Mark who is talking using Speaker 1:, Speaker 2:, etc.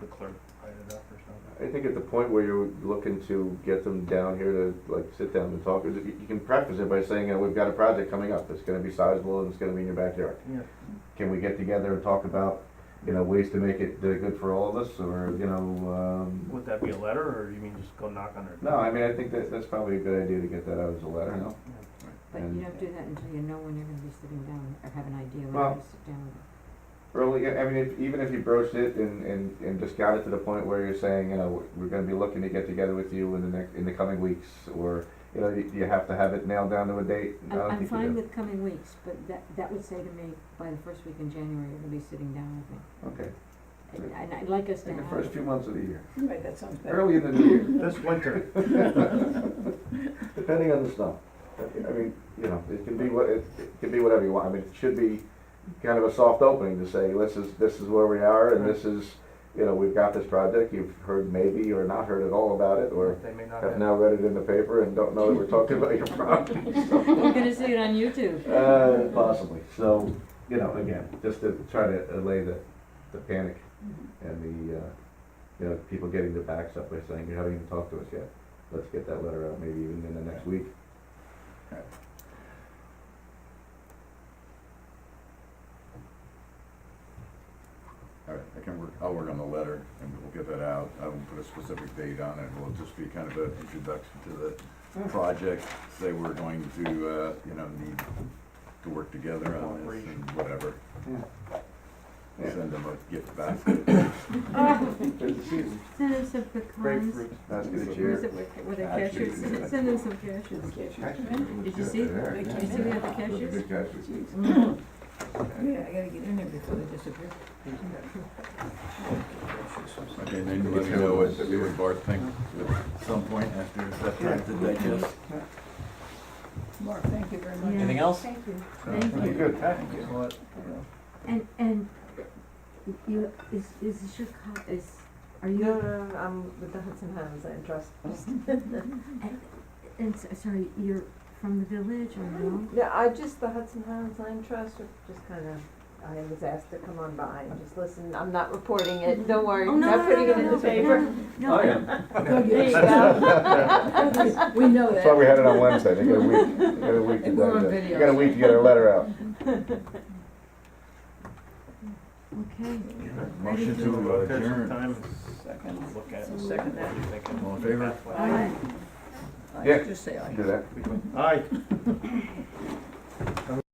Speaker 1: the clerk write it up or
Speaker 2: I think at the point where you're looking to get them down here to like sit down and talk, you you can preface it by saying, uh, we've got a project coming up that's gonna be sizable and it's gonna be in your backyard.
Speaker 1: something?
Speaker 2: Can we get together and talk about, you know, ways to make it uh, good for all of us or, you know, um,
Speaker 1: Would that be a letter, or you mean just go knock on their
Speaker 2: no, I mean, I think that, that's probably a good idea to get that out as a letter, no?
Speaker 3: But you don't do that until you know when you're gonna be sitting down or have an idea when
Speaker 2: Well-
Speaker 3: you're gonna sit down.
Speaker 2: Early, I mean, if, even if you broached it and, and, and just got it to the point where you're saying, you know, we're gonna be looking to get together with you in the next, in the coming weeks, or, you know, you, you have to have it nailed down to a date. I
Speaker 3: I'm,
Speaker 2: don't
Speaker 3: I'm
Speaker 2: think you
Speaker 3: fine
Speaker 2: do.
Speaker 3: with coming weeks, but that, that would say to me, by the first week in January, you're gonna be sitting down with me.
Speaker 2: Okay,
Speaker 3: And- And I'd like us to
Speaker 2: in
Speaker 3: have.
Speaker 2: the first few months of the year,
Speaker 4: Right, that sounds better.
Speaker 2: early in the new year,
Speaker 1: This winter,
Speaker 2: depending on the snow. I mean, you know, it can be what, it, it can be whatever you want, I mean, it should be kind of a soft opening to say, this is, this is where we are, and this is, you know, we've got this project, you've heard maybe or not heard at all about it, or
Speaker 1: they may not
Speaker 2: have
Speaker 1: have,
Speaker 2: now read it in the paper and don't know that we're talking about your problem.
Speaker 3: We're gonna see it on YouTube.
Speaker 2: Uh, possibly, so, you know, again, just to try to allay the, the panic
Speaker 4: Mm-hmm.
Speaker 2: and the, uh, you know, people getting their backs up by saying, you haven't even talked to us yet. Let's get that letter out, maybe even in the next week.
Speaker 5: All right, I can work, I'll work on the letter and we'll get that out. I won't put a specific date on it. It'll just be kind of an introduction to
Speaker 4: Mm.
Speaker 5: the project. Say we're going to, uh, you know, need to work together on this and whatever.
Speaker 2: Yeah. Yeah.
Speaker 5: Send them a gift basket.
Speaker 3: Send them some pecans.
Speaker 1: grapefruit,
Speaker 2: That's gonna
Speaker 3: Where's
Speaker 2: cheer.
Speaker 3: it, where where the
Speaker 2: Cashews.
Speaker 3: cashews, send send them some cashews. Did you see?
Speaker 4: Did
Speaker 3: Did you see we have the cashews?
Speaker 2: Big cashews.
Speaker 3: Mm.
Speaker 4: Yeah, I gotta get in there before they disappear.
Speaker 5: Okay, then you let me know what, what Bart thinks at some point after that time to digest.
Speaker 4: Mark, thank you very much.
Speaker 3: Yeah.
Speaker 6: Anything else?
Speaker 3: Thank you, thank you.
Speaker 2: Good.
Speaker 1: Well,
Speaker 3: And, and you, is, is this your co- is, are you?
Speaker 7: No, no, no, I'm with the Hudson Highlands Land Trust.
Speaker 3: Mm-hmm. And s sorry, you're from the village or no?
Speaker 7: Yeah, I just, the Hudson Highlands Land Trust, are just kind of, I was asked to come on by and just listen. I'm not reporting it, Eh, don't worry,
Speaker 3: Oh,
Speaker 7: I'm
Speaker 3: no,
Speaker 7: not
Speaker 3: no,
Speaker 7: putting
Speaker 3: no,
Speaker 7: it in
Speaker 3: no,
Speaker 7: the paper.
Speaker 2: Oh,
Speaker 3: No, no,
Speaker 7: There you go.
Speaker 4: We know
Speaker 2: That's why
Speaker 4: that.
Speaker 2: we had it on Wednesday, they got a week, they got a week to
Speaker 4: We're on
Speaker 2: digest.
Speaker 4: video.
Speaker 2: You got a week to get our letter out.
Speaker 3: okay.
Speaker 5: Motion to
Speaker 1: Well, there's some
Speaker 5: adjourn.
Speaker 1: time and
Speaker 4: Second.
Speaker 1: look at it.
Speaker 4: Second that.
Speaker 1: What do you think?
Speaker 5: All in favor?
Speaker 4: Aye.
Speaker 2: Yeah.
Speaker 4: Just say aye.
Speaker 2: Do that.
Speaker 1: Aye.